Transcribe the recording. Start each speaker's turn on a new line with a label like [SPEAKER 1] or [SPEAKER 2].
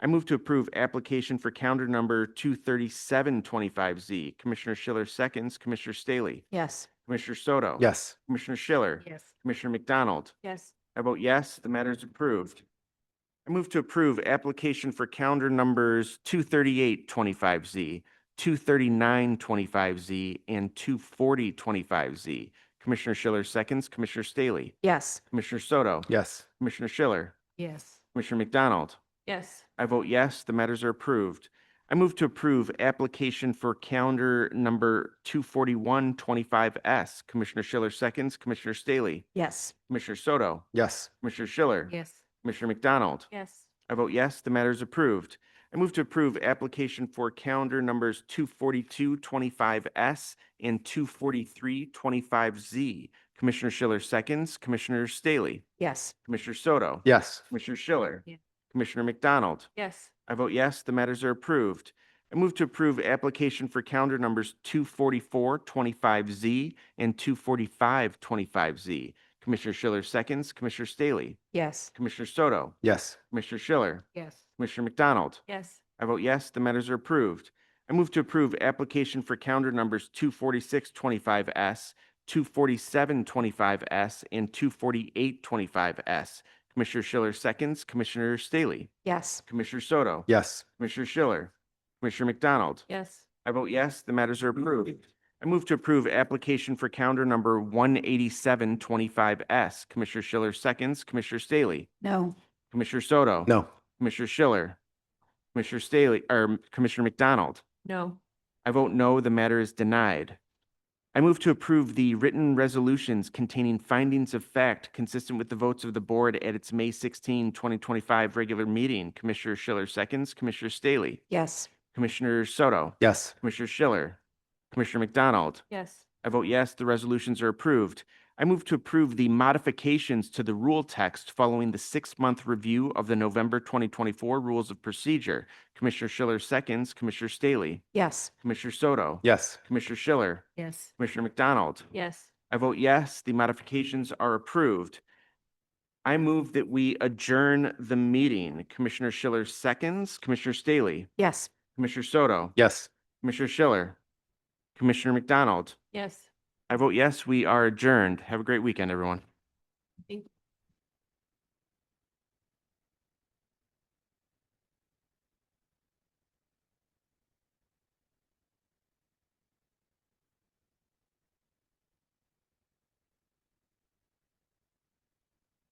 [SPEAKER 1] I move to approve application for calendar number two thirty-seven twenty-five Z. Commissioner Schiller seconds, Commissioner Staley,
[SPEAKER 2] Yes.
[SPEAKER 1] Commissioner Soto.
[SPEAKER 3] Yes.
[SPEAKER 1] Commissioner Schiller.
[SPEAKER 2] Yes.
[SPEAKER 1] Commissioner McDonald.
[SPEAKER 2] Yes.
[SPEAKER 1] I vote yes, the matter is approved. I move to approve application for calendar numbers two thirty-eight twenty-five Z, two thirty-nine twenty-five Z, and two forty twenty-five Z. Commissioner Schiller seconds, Commissioner Staley,
[SPEAKER 2] Yes.
[SPEAKER 1] Commissioner Soto,
[SPEAKER 3] Yes.
[SPEAKER 1] Commissioner Schiller,
[SPEAKER 2] Yes.
[SPEAKER 1] Commissioner McDonald.
[SPEAKER 2] Yes.
[SPEAKER 1] I vote yes, the matters are approved. I move to approve application for calendar number two forty-one twenty-five S. Commissioner Schiller seconds, Commissioner Staley,
[SPEAKER 2] Yes.
[SPEAKER 1] Commissioner Soto,
[SPEAKER 3] Yes.
[SPEAKER 1] Commissioner Schiller,
[SPEAKER 2] Yes.
[SPEAKER 1] Commissioner McDonald.
[SPEAKER 2] Yes.
[SPEAKER 1] I vote yes, the matter is approved. I move to approve application for calendar numbers 24225S and 24325Z. Commissioner Schiller seconds, Commissioner Staley,
[SPEAKER 2] Yes.
[SPEAKER 1] Commissioner Soto,
[SPEAKER 3] Yes.
[SPEAKER 1] Commissioner Schiller,
[SPEAKER 2] Yeah.
[SPEAKER 1] Commissioner McDonald.
[SPEAKER 2] Yes.
[SPEAKER 1] I vote yes, the matters are approved. I move to approve application for calendar numbers 24425Z and 24525Z. Commissioner Schiller seconds, Commissioner Staley,
[SPEAKER 2] Yes.
[SPEAKER 1] Commissioner Soto,
[SPEAKER 3] Yes.
[SPEAKER 1] Commissioner Schiller,
[SPEAKER 2] Yes.
[SPEAKER 1] Commissioner McDonald.
[SPEAKER 2] Yes.
[SPEAKER 1] I vote yes, the matters are approved. I move to approve application for calendar numbers 24625S, 24725S, and 24825S. Commissioner Schiller seconds, Commissioner Staley,
[SPEAKER 2] Yes.
[SPEAKER 1] Commissioner Soto,
[SPEAKER 3] Yes.
[SPEAKER 1] Commissioner Schiller, Commissioner McDonald.
[SPEAKER 2] Yes.
[SPEAKER 1] I vote yes, the matters are approved. I move to approve application for calendar number 18725S. Commissioner Schiller seconds, Commissioner Staley,
[SPEAKER 2] No.
[SPEAKER 1] Commissioner Soto.
[SPEAKER 3] No.
[SPEAKER 1] Commissioner Schiller, Commissioner Staley, or Commissioner McDonald.
[SPEAKER 2] No.
[SPEAKER 1] I vote no, the matter is denied. I move to approve the written resolutions containing findings of fact consistent with the votes of the board at its May 16, 2025 regular meeting. Commissioner Schiller seconds, Commissioner Staley,
[SPEAKER 2] Yes.
[SPEAKER 1] Commissioner Soto,
[SPEAKER 3] Yes.
[SPEAKER 1] Commissioner Schiller, Commissioner McDonald.
[SPEAKER 2] Yes.
[SPEAKER 1] I vote yes, the resolutions are approved. I move to approve the modifications to the rule text following the six-month review of the November 2024 Rules of Procedure. Commissioner Schiller seconds, Commissioner Staley,
[SPEAKER 2] Yes.
[SPEAKER 1] Commissioner Soto,
[SPEAKER 3] Yes.
[SPEAKER 1] Commissioner Schiller,
[SPEAKER 2] Yes.
[SPEAKER 1] Commissioner McDonald.
[SPEAKER 2] Yes.
[SPEAKER 1] I vote yes, the modifications are approved. I move that we adjourn the meeting. Commissioner Schiller seconds, Commissioner Staley,
[SPEAKER 2] Yes.
[SPEAKER 1] Commissioner Soto,
[SPEAKER 3] Yes.
[SPEAKER 1] Commissioner Schiller, Commissioner McDonald.
[SPEAKER 2] Yes.
[SPEAKER 1] I vote yes, we are adjourned. Have a great weekend, everyone.
[SPEAKER 2] Thank you.